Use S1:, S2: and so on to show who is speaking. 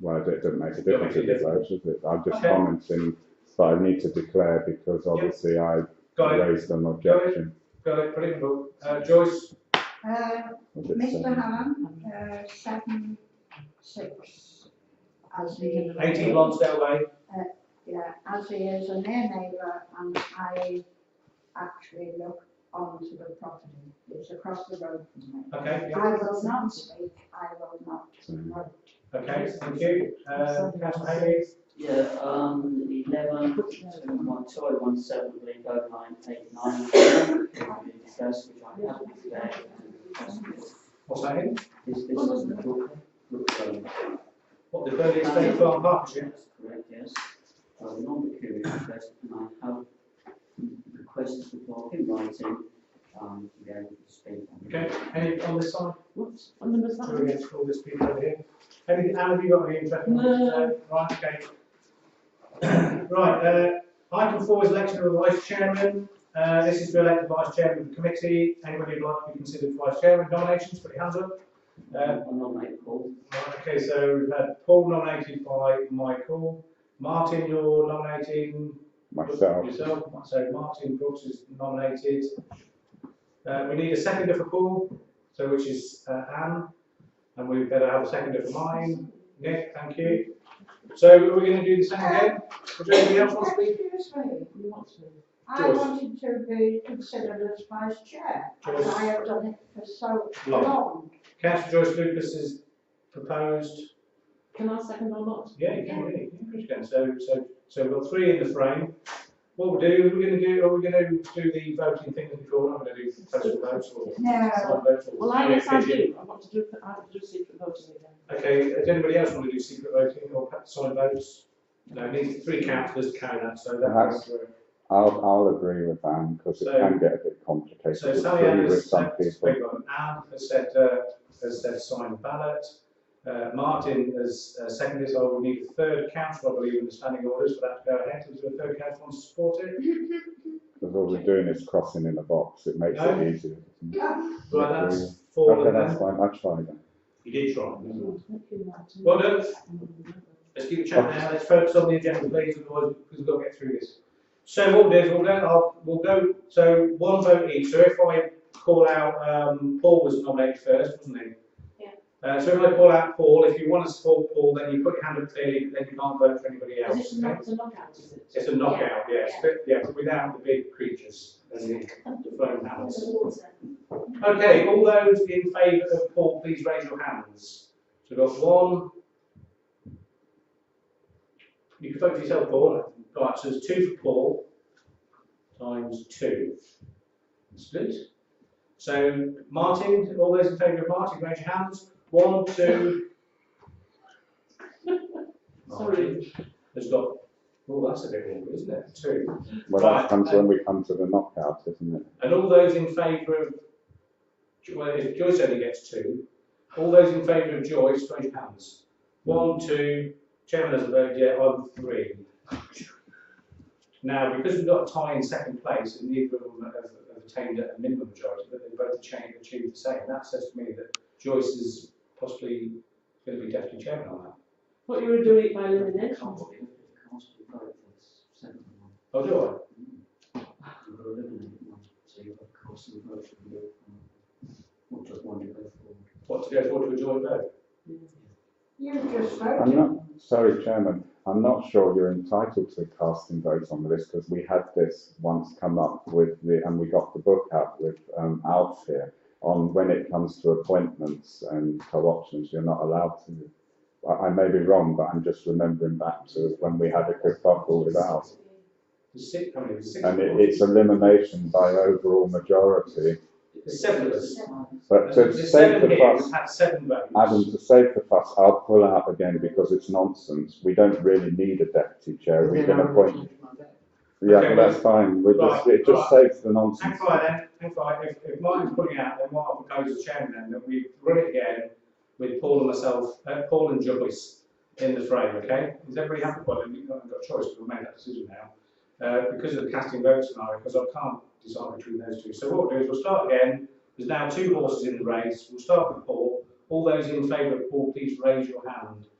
S1: well, it doesn't make a difference
S2: make
S1: if
S2: a
S1: it votes, does it? I'm just
S2: Okay.
S1: commenting, but I need to declare because obviously I
S2: Got it,
S1: raised an objection.
S2: got it, put it in book. Uh, Joyce,
S3: Uh,
S1: Was it
S3: Mr
S1: seven?
S3: Hammond, uh, seven, six. As he,
S2: eighteen Lonsdale Way,
S3: yeah, as he is a near neighbour and I actually look onto the property, it's across the road from me.
S2: okay,
S3: I will not speak, I will not
S1: Seven.
S3: vote.
S2: okay, thank you. Uh, Councillor Hayes,
S4: Yeah, um, eleven, one, two, oh, one, seven, eight, oh, nine, eight, nine, can be discussed, which I haven't today.
S2: what's that in?
S4: This, this is the Brook, Brook Road.
S2: What, the Burley Estate Farm Partnership?
S4: That's Correct, yes. I'm not peculiar interest, and I have requested the board in writing, um, to be able to speak on it.
S2: Okay, any on this side?
S4: Whoops, what number is
S2: Sorry, against all this people over here. Any, Anne, have you got any interesting? Uh,
S4: No.
S2: Right, okay. Right, uh, item four is election of the vice chairman. Uh, this is to elect the vice chairman of the committee. Anybody who'd like to be considered vice chairman, nominations, put your hands up. Uh,
S4: I'm not made Paul.
S2: right, okay, so we've had Paul nominated by Michael. Martin, you're nominating
S1: Myself,
S2: Yourself, so Martin Brooks is nominated. Uh, we need a seconder for Paul, so which is uh, Anne, and we better have a seconder for mine. Nick, thank you. So are we going to do the same again? Would anybody else want to speak?
S3: Excuse me, I
S2: Joyce.
S3: wanted to be considered as vice chair, and
S2: Joyce.
S3: I have done it for so
S2: Long.
S3: long.
S2: Councillor Joyce Lucas is proposed.
S5: Can I second or not?
S2: Yeah, you can, really, you can, Chris, go. so, so, so we've got three in the frame. What we'll do, we're going to do, are we going to do the voting thing as before? We're going to do postal votes or
S3: No,
S2: side votes or?
S5: Well, I, yes, I do, I want to do, I want to do secret voting again.
S2: Okay, does anybody else want to do secret voting or perhaps solid votes? No, it needs three councillors to carry that, so that's.
S1: Perhaps. I'll, I'll agree with Anne because it
S2: So-
S1: can get a bit complicated.
S2: So Sally Ann
S1: agree with
S2: has
S1: some
S2: said,
S1: people.
S2: Anne has said, uh, has said sign ballot. Uh, Martin has uh, seconded, so I will need a third council, I believe, in the standing orders for that to go ahead. Does the third council want to support it?
S1: Because all we're doing is crossing in a box. It makes
S2: No.
S1: it easier.
S2: Right,
S1: Yeah.
S2: that's four
S1: Okay,
S2: of
S1: that's
S2: them.
S1: fine. I tried that.
S2: You did try.
S5: Thank you, Martin.
S2: Well done. Let's keep chatting now, let's focus on the agenda, please, otherwise, because we've got to get through this. So what we'll do is we'll go, I'll, we'll go, so one vote each, so if I call out, um, Paul was nominated first, wasn't he?
S5: Yeah.
S2: Uh, so if I call out Paul, if you want to support Paul, then you put your hand up clearly, then you can't vote for anybody
S5: Is
S2: else,
S5: it
S2: okay?
S5: not, it's a knockout, is it?
S2: It's a knockout, yes, but, yeah, without the big creatures, as in the foam panels. Okay, all those in favour of Paul, please raise your hands. So we've got one. You can vote for yourself, Paul. Right, so there's two for Paul, times two. Split. So Martin, all those in favour of Martin, raise your hands. One, two. Martin Has got, oh, that's a bit awkward, isn't it? Two.
S1: Well,
S2: Right,
S1: that comes
S2: um,
S1: when we come to the knockout, isn't it?
S2: And all those in favour of, well, if Joyce only gets two, all those in favour of Joyce, raise your hands. One, two, chairman hasn't voted yet, I'm three. Now, because we've got a tie in second place and neither of them have have attained a minimum majority, but they both achieved, achieved the same, that says to me that Joyce is possibly going to be deputy chairman on that.
S5: What you were doing by
S4: Can't
S5: elimination.
S4: be, can't be both, that's seven.
S2: Oh, do I?
S4: You're eliminating one, so you've got cost and vote from both. Or just one to go forward.
S2: What, to go forward to a joint vote?
S3: you just
S1: I'm
S3: voted.
S1: not, sorry, Chairman, I'm not sure you're entitled to casting votes on this because we had this once come up with the, and we got the book out with um, Alf here on when it comes to appointments and co-options, you're not allowed to. I, I may be wrong, but I'm just remembering back to when we had a kerfuffle with Alf.
S2: There's six, how many, There's six?
S1: And it, it's elimination by overall majority.
S2: There's seven of us.
S1: But to save
S2: There's seven
S1: the
S2: here, we've
S1: fuss,
S2: had seven votes.
S1: Adam, to save the fuss, I'll pull out again because it's nonsense. We don't really need a deputy chair. We can appoint Yeah,
S2: Okay,
S1: but that's fine, we
S2: right,
S1: just, it just saves the nonsense.
S2: Hang fire then, hang fire, if, if Martin's pulling out, then what I propose as chairman then, that we run it again with Paul and myself, uh, Paul and Joyce in the frame, okay? Is everybody happy, well, then you've not got a choice, we'll make that decision now. Uh, because of the casting vote scenario, because I can't decide between those two, so what we'll do is we'll start again, there's now two horses in the race, we'll start with Paul. All those in favour of Paul, please raise your hand.